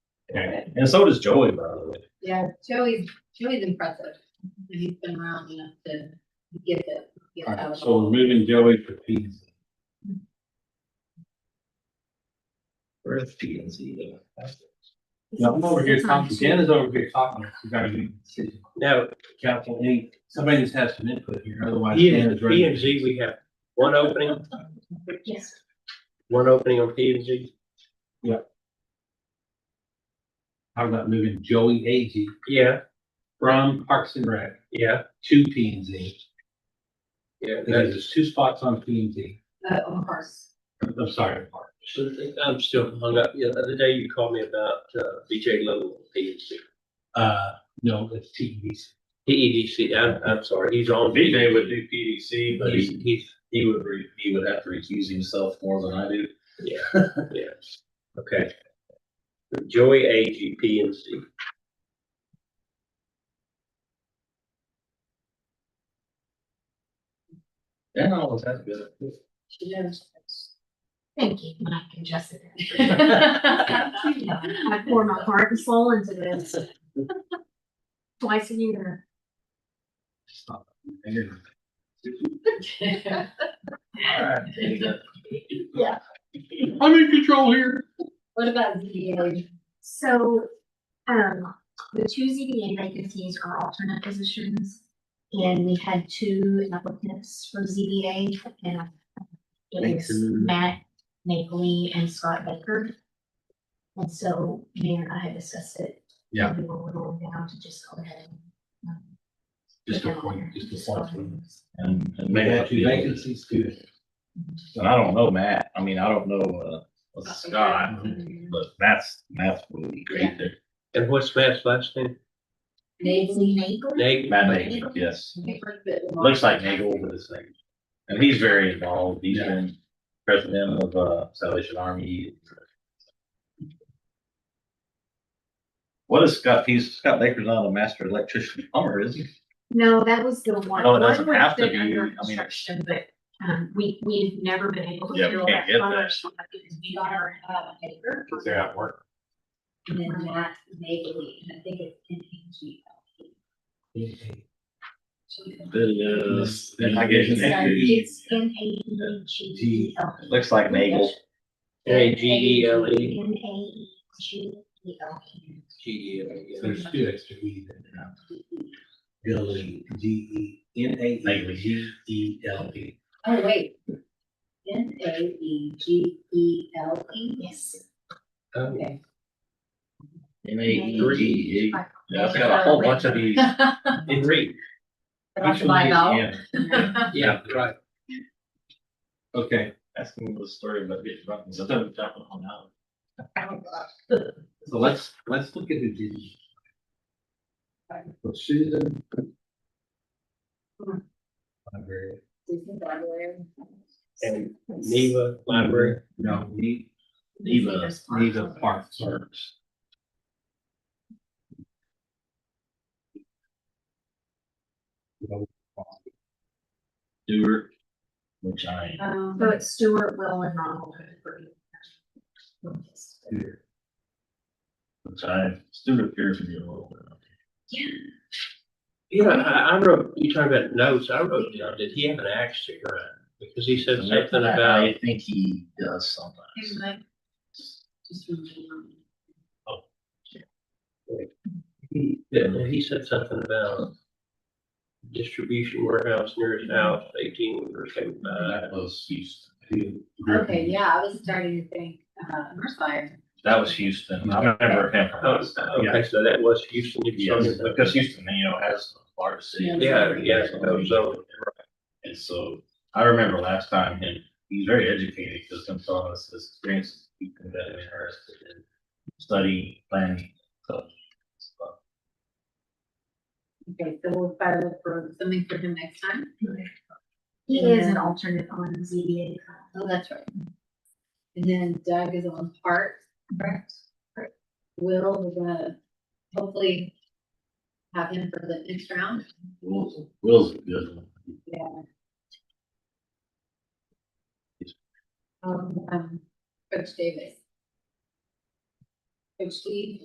Okay, and so does Joey, by the way. Yeah, Joey's, Joey's impressive. He's been around enough to get it. get All right, out. so we're moving Joey for P and Z. Where's P and Z? No, I'm over here talking, Dan is over here talking, we gotta be, No, council, any, E. somebody just has some input here, otherwise. P Dan E and, is ready. P and Z, we have one opening, Yes. one opening on P and Z. How about moving Joey Ag Yeah, from Parks and Rec yeah, to P and Z? yeah. Because there's two spots on P and Z, Uh, of course. I'm sorry, Park. that's- I'm still hung up. Yeah, The other day you called me about uh, BJ Little, on P and Z. Uh, no, it's T E C. PEDC, I'm, I'm sorry, he's on. VJ would do PDC, but He's, he, he's, he would, re- he would have to recuse himself more than I do. yes, okay. Joey AG, P and Z. Dan always has been. She knows. Thank you, Mike and Jessica. I pour my heart and soul into this. Twice a year. I'm in control here. What about ZBA? So, um, the two ZBA vacancies are alternate positions. And we had two applicants for ZBA and it was Matt Napoli and Scott Baker. And so, Mayor and I had discussed it. Yeah. We were going down to just go ahead and. um, Just put a them on there. point, just a point. And, and They maybe had two vacancies, good. And I don't know Matt, I mean, I don't know, uh, what's Scott, but Matt's, Matt's really great there. And what's Matt's last name? Maybe. Napoli? Nagel? Matt Nagel, yes, looks like Nagel with his name. And he's very involved, he's been president of, uh, Salvation Army. What is Scott, he's, Scott Baker's not a master electrician plumber, is he? No, that was the one. No, Oh, it doesn't One was have to been be, under I mean- construction, But, um, we, we've never been able Yeah, to we fill can't that get that. function because we got our, uh, paper. They're at work. And then Matt Nagel, and I think it's N A E G L. It is- Nagel. It's N A E G E L. Looks like Nagel. A G E L E. N A E G E L E. G E L E. There's two extra E's in there. Building, D E N A Nagel. E G E L E. Oh, wait. N A E G E L E? Yes. Oh, Okay. M A E G E. Like- Yeah, I've got a whole bunch of these. Three, About Which to one buy is now. N? yeah, right. Okay, That's the little story about getting drunk. and sometimes jumping on out. so let's, let's look at who did. it. So Susan. Library. And Neva Library. No, Ne- These are Neva, the smart Neva ones. Park Service. Stewart, which I, Um, So it's Stuart, Will and Ronald. which I, Stewart appears to be a little You know, I, I wrote, you talking about notes, I wrote down, did he have an axe to grind? Because he said bit. something I about, think he does here's sometimes. my- just remember. he said something about distribution warehouse near his house, eighteen or something. That was Houston. Okay, yeah, I was starting to think, uh, Mercer. That was Houston. I remember him. Oh, Okay, so that was Houston. if you- Yes, because Houston, you know, has the largest city. Yeah, yeah, no zone. And so I remember last time him, he's very educated, just him telling us his experiences, he's been very interested in study, planning, so. so, Okay, so we'll try to look for something for him next time. He is an alternate on ZBA. Oh, that's right. And then Doug is on part, correct? Correct. Will, we're gonna hopefully have him for the next round. Will's, Will's a good one. Um, um, Coach Davis. Coach Steve.